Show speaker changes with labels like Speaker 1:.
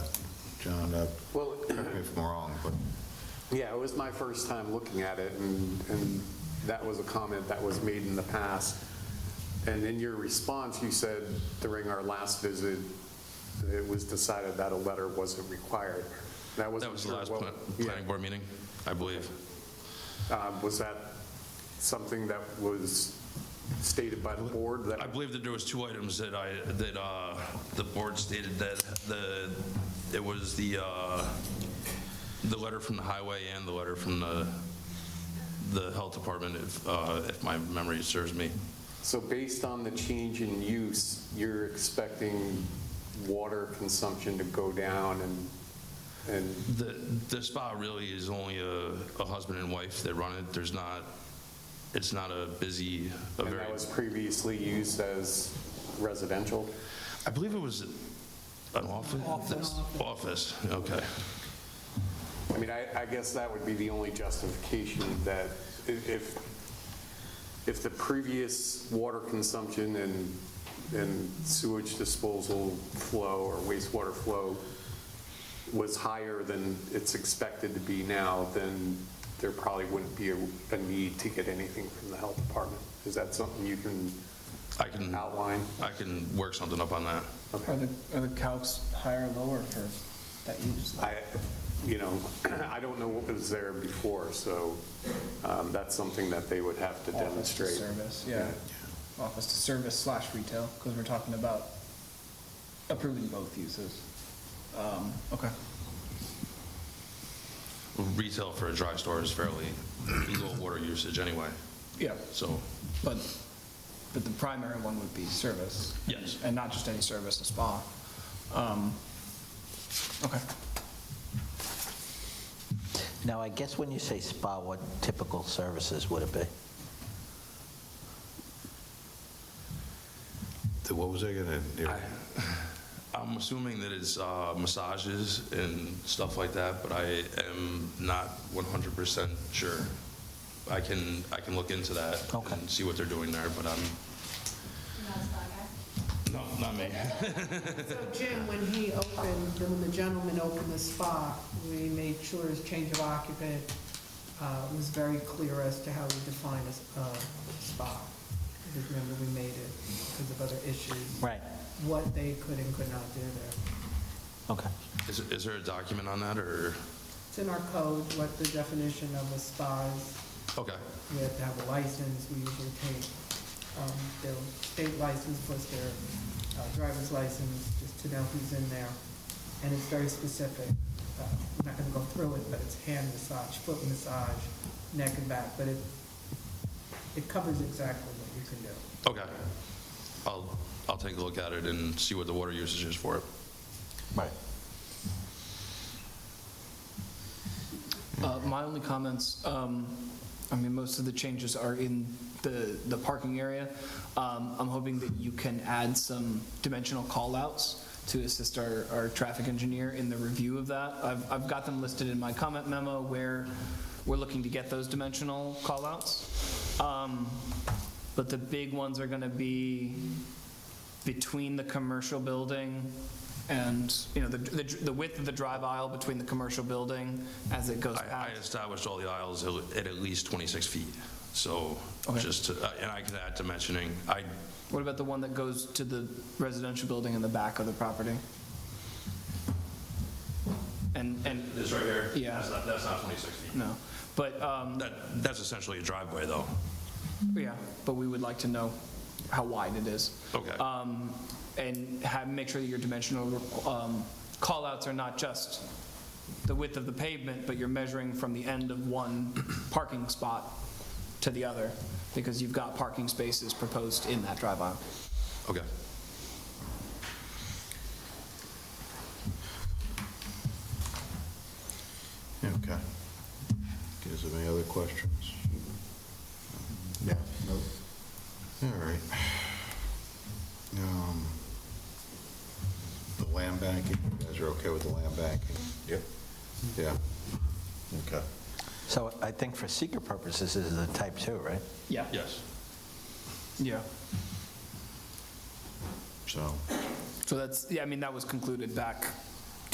Speaker 1: on the,
Speaker 2: Well,
Speaker 1: uh, correct me if I'm wrong, but
Speaker 2: yeah, it was my first time looking at it, and, and that was a comment that was made in the past. And in your response, you said during our last visit, it was decided that a letter wasn't required. That
Speaker 3: That
Speaker 2: wasn't
Speaker 3: was the
Speaker 2: sure
Speaker 3: last
Speaker 2: what-
Speaker 3: pla-
Speaker 2: yeah.
Speaker 3: planning board meeting, I believe.
Speaker 2: Um, Was that something that was stated by the board? that-
Speaker 3: I believe that there was two items that I, that uh, the board stated that the, it was the, uh, the letter from the highway and the letter from the, the health department, if, uh, if my memory serves me.
Speaker 2: So based on the change in use, you're expecting water consumption to go down and, and,
Speaker 3: The, the spa really is only a, a husband and wife that run it. There's not, it's not a busy, a
Speaker 2: and
Speaker 3: very.
Speaker 2: that was previously used as residential?
Speaker 3: I believe it was an office? Office. Office, okay.
Speaker 2: I mean, I, I guess that would be the only justification that i- if, if the previous water consumption and, and sewage disposal flow or wastewater flow was higher than it's expected to be now, then there probably wouldn't be a, a need to get anything from the health department. Is that something you can
Speaker 3: I can, I
Speaker 2: outline?
Speaker 3: can work something up on that.
Speaker 4: Are the, are the calcs higher or lower for that use?
Speaker 2: I, you know, I don't know what was there before, so um, that's something that they would have to
Speaker 4: Office to
Speaker 2: demonstrate.
Speaker 4: service, yeah. Office to service slash retail, because we're talking about approving both uses. Um, Okay.
Speaker 3: Retail for a dry store is fairly low water usage anyway,
Speaker 4: Yeah,
Speaker 3: so,
Speaker 4: but, but the primary one would be service.
Speaker 3: Yes.
Speaker 4: And not just any service, a spa. Um, Okay.
Speaker 5: Now, I guess when you say spa, what typical services would it be?
Speaker 1: the- what was I going to,
Speaker 3: I'm assuming that it's uh, massages and stuff like that, but I am not 100% sure. I can, I can look into that
Speaker 5: Okay.
Speaker 3: and see what they're doing there, but I'm, no, not me.
Speaker 6: So Jim, when he opened, when the gentleman opened the spa, we made sure his change of occupant uh, was very clear as to how we define a s- a spa. Because remember, we made it because of other issues,
Speaker 5: Right.
Speaker 6: what they could and could not do there.
Speaker 5: Okay.
Speaker 3: Is, is there a document on that, or,
Speaker 6: It's in our code, what the definition of a spa is.
Speaker 3: okay,
Speaker 6: You have to have a license, we usually take um, their state license plus their uh, driver's license, just to know who's in there. And it's very specific. Uh, I'm not going to go through it, but it's hand massage, foot massage, neck and back, but it, it covers exactly what you can do.
Speaker 3: okay. I'll, I'll take a look at it and see what the water usage is for it.
Speaker 5: Right.
Speaker 4: Uh, My only comments, um, I mean, most of the changes are in the, the parking area. Um, I'm hoping that you can add some dimensional callouts to assist our, our traffic engineer in the review of that. I've, I've got them listed in my comment memo where we're looking to get those dimensional callouts. Um, But the big ones are going to be between the commercial building and, you know, the, the the width of the drive aisle between the commercial building as it goes
Speaker 3: I, I
Speaker 4: past.
Speaker 3: established all the aisles at at least 26 feet, so
Speaker 4: Okay.
Speaker 3: just, to- uh, and I can add dimensioning. I,
Speaker 4: What about the one that goes to the residential building in the back of the property? And, and,
Speaker 3: this right here?
Speaker 4: Yeah.
Speaker 3: That's not, that's not 26 feet.
Speaker 4: no, but, um,
Speaker 3: That, that's essentially a driveway, though.
Speaker 4: yeah, but we would like to know how wide it is.
Speaker 3: Okay.
Speaker 4: Um, and have, make sure that your dimensional, um, callouts are not just the width of the pavement, but you're measuring from the end of one parking spot to the other, because you've got parking spaces proposed in that drive aisle.
Speaker 3: Okay.
Speaker 1: okay. Is there any other questions? Yeah. Nope. All right. Um, The land banking, you guys are okay with the land banking? Yep. Yeah. Okay.
Speaker 5: So I think for seeker purposes, this is a type 2, right?
Speaker 4: Yeah.
Speaker 3: Yes.
Speaker 4: Yeah.
Speaker 1: So,
Speaker 4: So that's, yeah, I mean, that was concluded back